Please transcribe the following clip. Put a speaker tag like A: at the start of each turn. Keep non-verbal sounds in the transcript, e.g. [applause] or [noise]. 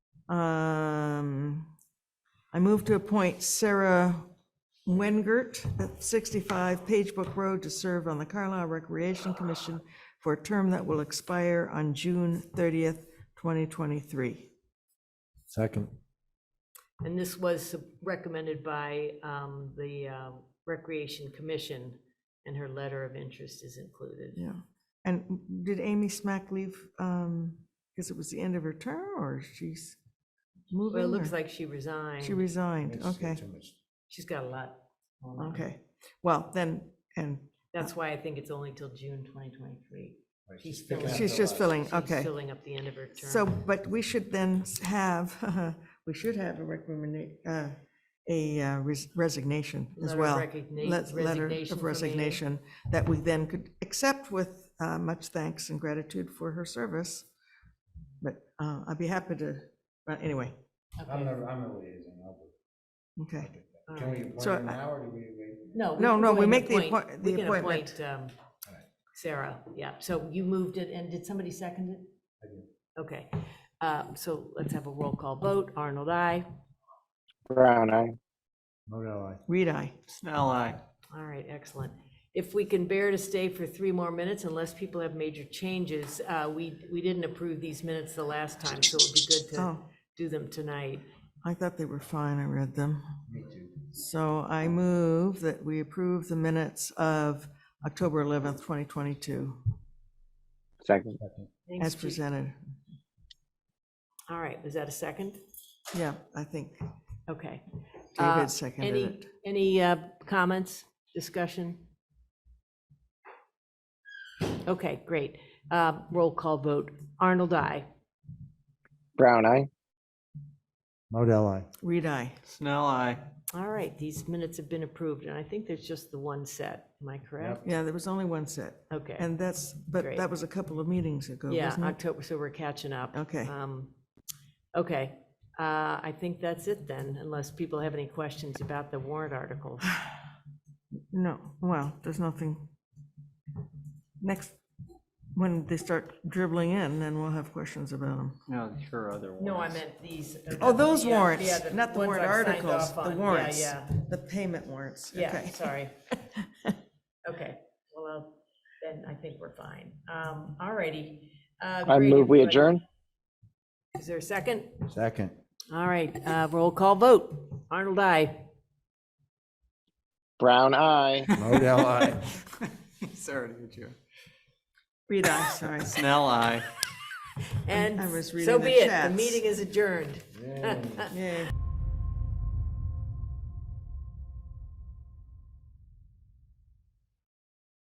A: Um, I move to appoint Sarah Wengert at 65 Pagebook Road to serve on the Carlisle Recreation Commission for a term that will expire on June 30th, 2023.
B: Second.
C: And this was recommended by um, the uh, Recreation Commission, and her letter of interest is included.
A: Yeah. And did Amy Smack leave, um, because it was the end of her term, or she's moving?
C: Well, it looks
A: or-
C: like she resigned.
A: She resigned, okay,
C: She's got a lot. going on.
A: okay. Well, then, and
C: That's why I think it's only till June 2023. She's
A: she's just filling,
C: She's
A: okay.
C: Filling up the end of her term.
A: So, but we should then s- have, [laughs] we should have a recommendation, a uh, res- resignation as
C: Letter of
A: well.
C: recogni-
A: Let- Letter
C: resignation from
A: of
C: Amy.
A: resignation that we then could accept with uh, much thanks and gratitude for her service. But uh, I'd be happy to, but anyway,
C: Okay.
D: I'm a, I'm a liaison. I'll do- I'll
A: okay.
D: do that.
C: All
D: Can we
C: right.
D: appoint
A: So
D: him
A: I-
D: now or do we wait?
C: No.
A: No,
C: can
A: no,
C: go
A: we
C: and
A: make the
C: appoint-
A: appoint-
C: we
A: the
C: can
A: appointment.
C: appoint, um,
D: All right.
C: Sarah, yeah. So you moved it, and did somebody second it?
D: I did.
C: Okay. Um, So let's have a roll call vote. Arnold, I.
E: Brown eye.
D: Modell, aye.
A: Reed, I.
B: Snell, aye.
C: All right, excellent. If we can bear to stay for three more minutes, unless people have major changes, uh, we, we didn't approve these minutes the last time, so it would be good to
A: Oh.
C: do them tonight.
A: I thought they were fine, I read them.
D: Me too.
A: So I move that we approve the minutes of October 11th, 2022,
E: Second.
C: Thanks,
A: as
C: Ju-
A: presented.
C: All right, was that a second?
A: Yeah, I think
C: Okay. Uh,
A: David seconded
C: any-
A: it.
C: Any uh, comments, discussion? Okay, great. Uh, Roll call vote. Arnold, I.
E: Brown eye.
D: Modell, aye.
A: Reed, I.
B: Snell, aye.
C: All right, these minutes have been approved, and I think there's just the one set. Am I correct?
A: Yeah, there was only one set,
C: Okay.
A: and that's, but
C: Great.
A: that was a couple of meetings ago,
C: Yeah,
A: wasn't it?
C: October, so we're catching up.
A: Okay.
C: Um, Okay, uh, I think that's it then, unless people have any questions about the warrant articles.
A: No, well, there's nothing. Next, when they start dribbling in, then we'll have questions about them.
B: No, Oh, sure, other ones.
C: these. uh,
A: Oh, those warrants, not the warrant articles, the warrants, the payment warrants.
C: Yeah,
A: Okay. [laughs]
C: sorry. Okay, well, I'll- then I think we're fine. Um, All righty. Uh,
E: I
C: great
E: move we
C: input.
E: adjourn.
C: Is there a second?
D: Second.
C: All right, uh, roll call vote. Arnold, I.
E: Brown eye.
D: Modell, aye.
B: Sorry to hit you.
A: Reed, I,
C: [laughs]
A: sorry.
B: Snell, aye.
C: And
A: I was
C: so
A: reading the
C: be it, the
A: chats.
C: meeting is adjourned.
A: Yay.